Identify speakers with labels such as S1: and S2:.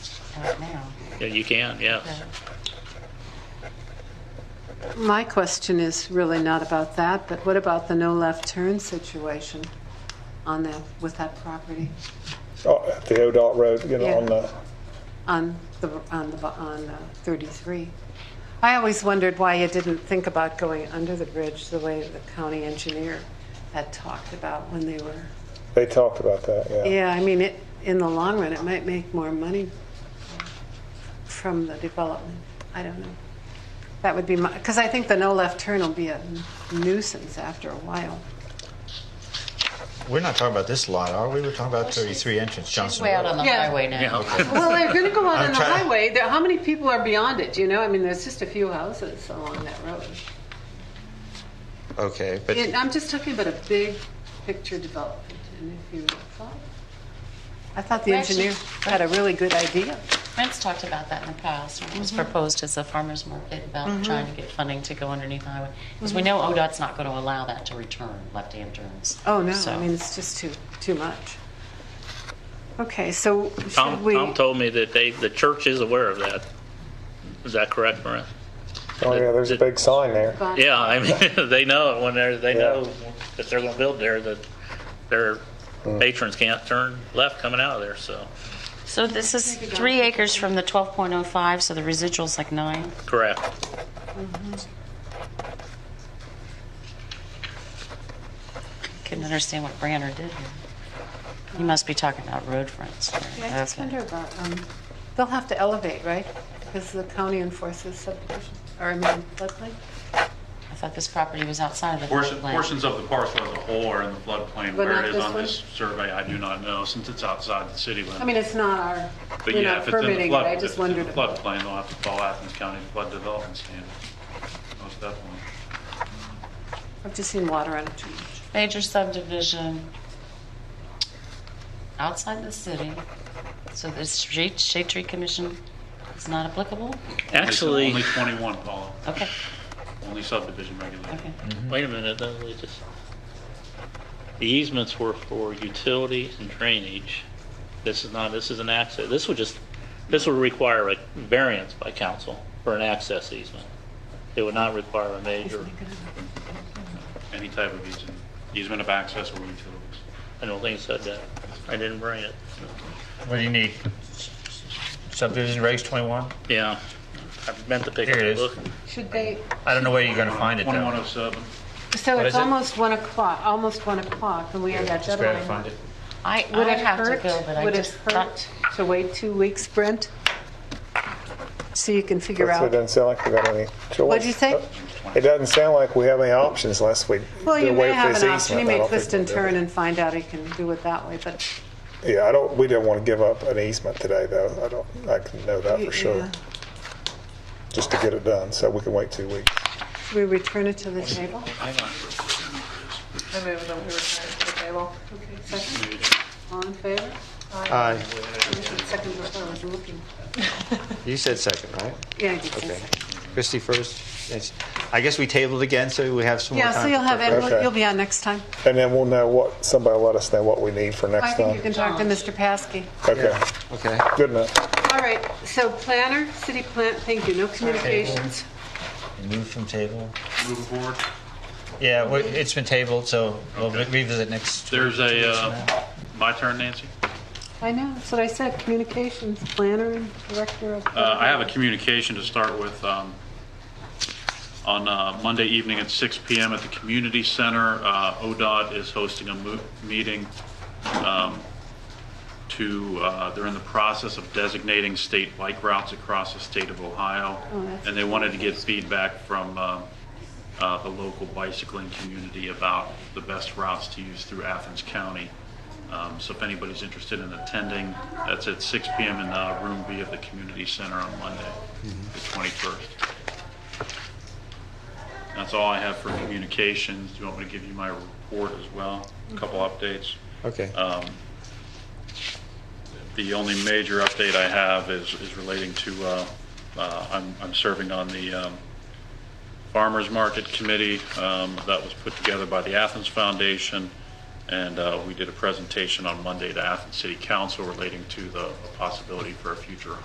S1: out now.
S2: Yeah, you can, yes.
S1: but-
S3: My question is really not about that, but what about the no left turn situation on that, with that property?
S4: Oh, the ODOT road, you know,
S3: Yeah.
S4: on the,
S3: on the, on the, on uh, 33. I always wondered why you didn't think about going under the bridge the way the county engineer had talked about when they were.
S4: they talked about that, yeah.
S3: Yeah, I mean, it, in the long run, it might make more money from the development. I don't know. That would be my, because I think the no left turn will be a nuisance after a while.
S5: We're not talking about this lot, are we? We're talking about 33 entrance Johnson
S1: Way out on
S5: Road.
S1: the
S3: Yeah.
S1: highway now.
S3: Well, they're going to go out
S5: I'm
S3: on the
S5: trying-
S3: highway. There, how many people are beyond it? You know, I mean, there's just a few houses along that road.
S5: Okay, but
S3: Yeah, I'm just talking about a big picture development, and if you thought. I thought the
S1: Well, actually-
S3: engineer had a really good idea.
S1: Brent's talked about that in the past, when it was proposed as a farmer's market about trying to get funding to go underneath the highway. Because we know ODOT's not going to allow that to return, left-hand turns.
S3: Oh, no, I
S1: So-
S3: mean, it's just too, too much. Okay, so should
S2: Tom,
S3: we?
S2: Tom told me that they, the church is aware of that. Is that correct, Brent?
S4: Oh, yeah, there's a big sign there.
S2: Yeah, I mean, they know it when they're, they
S4: Yeah.
S2: know that they're gonna build there, that their patrons can't turn left coming out of there, so,
S1: So this is three acres from the 12.05, so the residual's like nine.
S2: correct.
S1: Couldn't understand what Branner did here. You must be talking about road fronts.
S3: Yeah, I just
S1: Okay.
S3: wonder about, um, they'll have to elevate, right? Because the county enforces subdivision, or I mean, floodplain?
S1: I thought this property was outside of the
S6: Portion-
S1: floodplain.
S6: Portions of the parcel as a whole are in the
S3: But
S6: floodplain. Where
S3: not
S6: it is
S3: this
S6: on
S3: one?
S6: this survey, I do not know, since it's outside the city limits.
S3: I mean, it's not our,
S6: But
S3: we're
S6: yeah,
S3: not
S6: if it's in the
S3: permitting it,
S6: flood-
S3: I
S6: if
S3: just
S6: it's in the
S3: wondered. about-
S6: Floodplain, they'll have to follow Athens County Flood Development Standards, most definitely.
S3: I've just seen water on a tree.
S1: Major subdivision outside the city, so the street, shade tree commission is not applicable?
S2: Actually,
S6: Only 21, Paula,
S1: Okay,
S6: only subdivision regulated.
S1: okay.
S3: Mm.
S2: wait a minute, though, they just, the easements were for utilities and drainage. This is not, this is an access, this would just, this would require a variance by council for an access easement. It would not require a major,
S6: Any type of easement, easement of access or utilities.
S2: I don't think it said that. I didn't bring it.
S5: what do you need? Subdivision regs 21?
S2: Yeah, I meant to pick
S5: Here it
S2: it up.
S5: is.
S3: Should they,
S5: I don't know where you're going to find it, though.
S6: 2107.
S3: so
S5: What
S3: it's
S5: is it?
S3: almost 1 o'clock, almost 1 o'clock, and we have that
S5: Just gotta
S3: deadline.
S5: find it.
S1: I, I
S3: Would
S1: would
S3: it
S1: have to
S3: hurt?
S1: go, but I
S3: Would it
S1: just
S3: hurt
S1: thought,
S3: to wait two weeks, Brent? So you can figure
S4: That's- It
S3: out.
S4: doesn't sound like we got any choice.
S3: What'd you say?
S4: It doesn't sound like we have any options unless we
S3: Well,
S4: do
S3: you
S4: away
S3: may
S4: with
S3: have
S4: this
S3: an option. You
S4: easement. I
S3: may
S4: don't
S3: twist
S4: think
S3: and
S4: we'll do
S3: turn
S4: it.
S3: and find out you can do it that way, but.
S4: Yeah, I don't, we didn't want to give up an easement today, though. I don't, I can know that for sure,
S3: yeah.
S4: just to get it done, so we can wait two weeks.
S3: Should we return it to the table?
S7: I move that we return it to the table.
S3: Okay, second. All in favor?
S5: Aye.
S3: Second before I was looking.
S5: You said second, right?
S3: Yeah, I did say
S5: Okay.
S3: second.
S5: Christie first. It's- I guess we tabled again, so we have some more
S3: Yeah,
S5: time.
S3: so you'll
S5: to
S3: have,
S5: prepare.
S3: Ed-
S4: Okay.
S3: you'll be on next time.
S4: And then we'll know what, somebody let us know what we need for
S3: I
S4: next
S3: think you
S4: time.
S3: can talk to Mr. Paskey.
S4: Okay,
S5: Okay.
S4: good enough.
S3: All right, so planner, city plant, thank you, no communications.
S5: Move from table.
S6: Moving forward,
S5: Yeah, we- it's been tabled, so we'll re- revisit next.
S6: there's a, uh, my turn, Nancy?
S3: I know, that's what I said, communications, planner and director of.
S6: Uh, I have a communication to start with. um, On uh, Monday evening at 6 PM at the community center, uh, ODOT is hosting a mo- meeting um, to, uh, they're in the process of designating state bike routes across the state of Ohio.
S3: that's
S6: And they wanted to get feedback from um, uh, the local bicycling community about the best routes to use through Athens County. Um, So if anybody's interested in attending, that's at 6 PM in uh, Room B of the Community Center on Monday, the 21st. That's all I have for communications. Do you want me to give you my report as well? A couple updates.
S5: Okay.
S6: The only major update I have is, is relating to, uh, uh, I'm, I'm serving on the um, Farmers Market Committee um, that was put together by the Athens Foundation, and uh, we did a presentation on Monday to Athens City Council relating to the possibility for a future